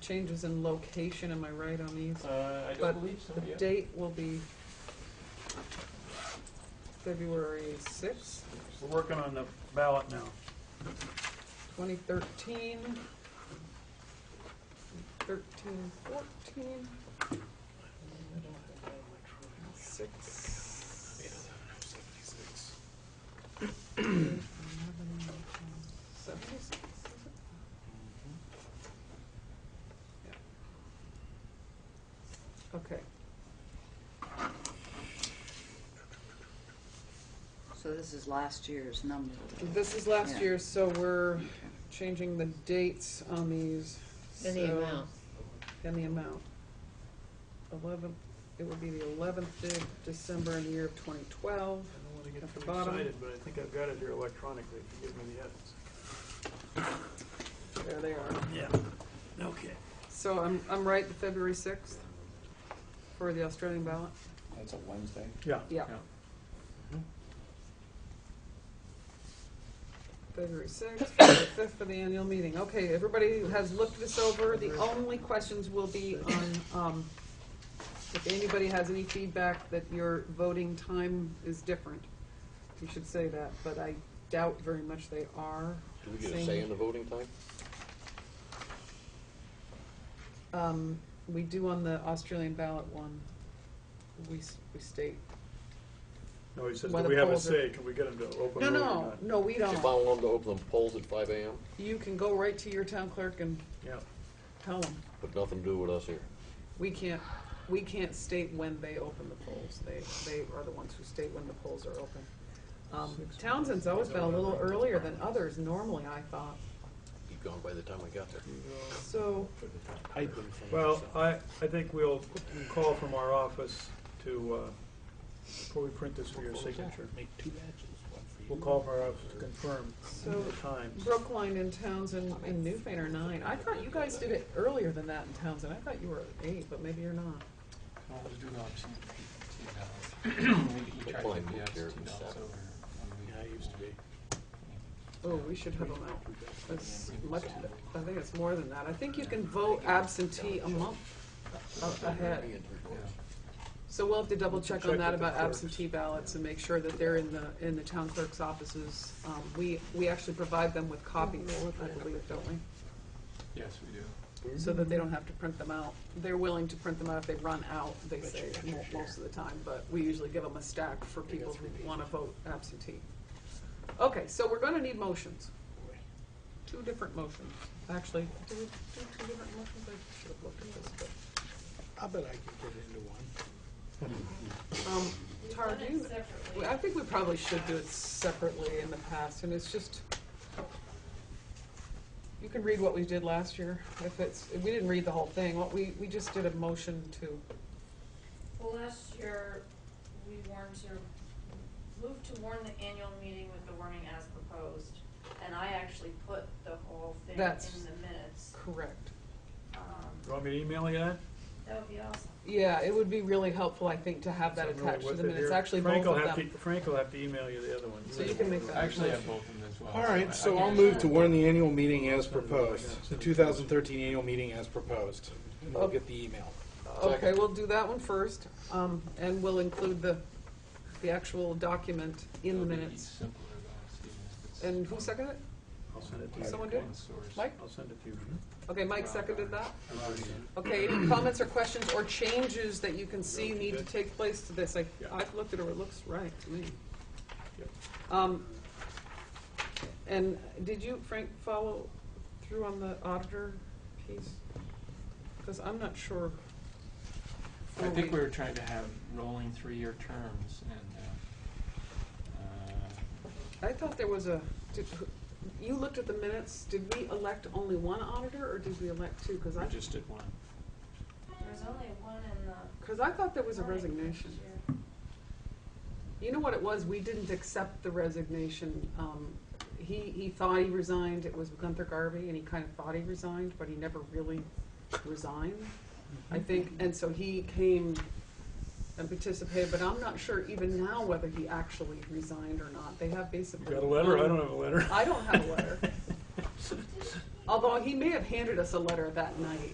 changes in location, am I right on these? Uh, I But don't believe so, The yeah. date will be February sixth, We're working on the ballot now. twenty thirteen. Thirteen, fourteen, six. Seventy-six, is it? Okay, So this is last year's number. this is last Yeah. year, so we're Okay. changing the dates on these. And the so- amount. And the amount. Eleven, it would be the eleventh of December in the year of twenty twelve. I don't want to At get the too bottom. excited, but I think I've got it here electronically, if you give me the edits. There they are. Yeah, okay. So I'm, I'm right, the February sixth for the Australian ballot? That's a Wednesday. Yeah. Yeah. Mm-hmm. Yeah. February sixth, February fifth for the annual meeting. Okay, everybody has looked this over. The only questions will be on, um, if anybody has any feedback that your voting time is different, you should say that, but I doubt very much they are. Do we get a say in the voting time? Um, we do on the Australian ballot one. We, s- we state. No, he says, Why do the we have a polls are- say? Can we get him to No, open the voting no, on it? no, we If I don't. want them to open the polls at five AM, You can go right to your town clerk and Yeah. tell them. but nothing to do with us here. We can't, we can't state when they open the polls. They, they are the ones who state when the polls are open. Um, Townsend's always been a little earlier than others normally, I thought. You'd gone by the time I got there. So, Well, uh, I, I think we'll call from our office to, uh, before we print this for your signature, Make two batches, one for you. we'll call from our office to confirm so the times. Brookline and Townsend and Newfane are nine. I thought you guys did it earlier than that in Townsend. I thought you were eight, but maybe you're not. Can always do the option for two dollars. Maybe he But charges mine the moved odds here two to dollars seven. over. Yeah, it used to be. Oh, we should have them out. It's much, I think it's more than that. I think you can vote absentee a month a- ahead. So we'll have to double check on Check that with the about clerks. absentee ballots and make sure that they're in the, in the town clerk's offices. Um, we, we actually provide them with copies, I believe, don't we? Yes, we do. So that they don't have to print them out. They're willing to print them out if they run out, they say, mo- most of the time, but we usually give them a stack for people who wanna vote absentee. Okay, so we're gonna need motions. Two different motions, actually. Do we do two different motions? I should have looked at this, but, I bet I could get into one. um, Tara, do you- Well, I think we probably should do it separately in the past, and it's just, you can read what we did last year, if it's, we didn't read the whole thing, what we, we just did a motion to, Well, last year, we warned to, moved to warn the annual meeting with the warning as proposed. And I actually put the whole thing in the That's- minutes. correct. You Um, want me to email you that? That would be awesome. Yeah, it would be really helpful, I think, to have that Something really attached to with the it minutes, here. actually Frank both will of have them. to- Frank will have to email you the other one. So you can make that. I actually have both of them as well. All I- right, so I I'll can- move to warn the annual meeting as proposed, the 2013 annual meeting as proposed. And we'll get the email. Okay, we'll do that one first, um, and we'll include the, the actual document in the It'll be minutes. simpler though, Stephen, if it's And who seconded it? I'll send it to you. Someone did? one source. Mike? I'll send it to you. Okay, Mike seconded that? Right. Okay, any comments or questions or changes that you can see need to take place to this? I, Yeah. I've looked at it, it looks right to me. Yep. Um, and did you, Frank, follow through on the auditor piece? Because I'm not sure. Oh, I think we were trying to have rolling three-year terms and, uh, uh, I thought there was a, did, you looked at the minutes, did we elect only one auditor or did we elect two? Because I, we just did one. There's only one in the. because I thought there was a warning resignation. this year. You know what it was? We didn't accept the resignation. Um, he, he thought he resigned. It was Gunther Garvey, and he kind of thought he resigned, but he never really resigned, I think. And so he came and participated, but I'm not sure even now whether he actually resigned or not. They have basically. You got a letter? I don't have a letter. I don't have a letter. Although he may have handed us a letter that night.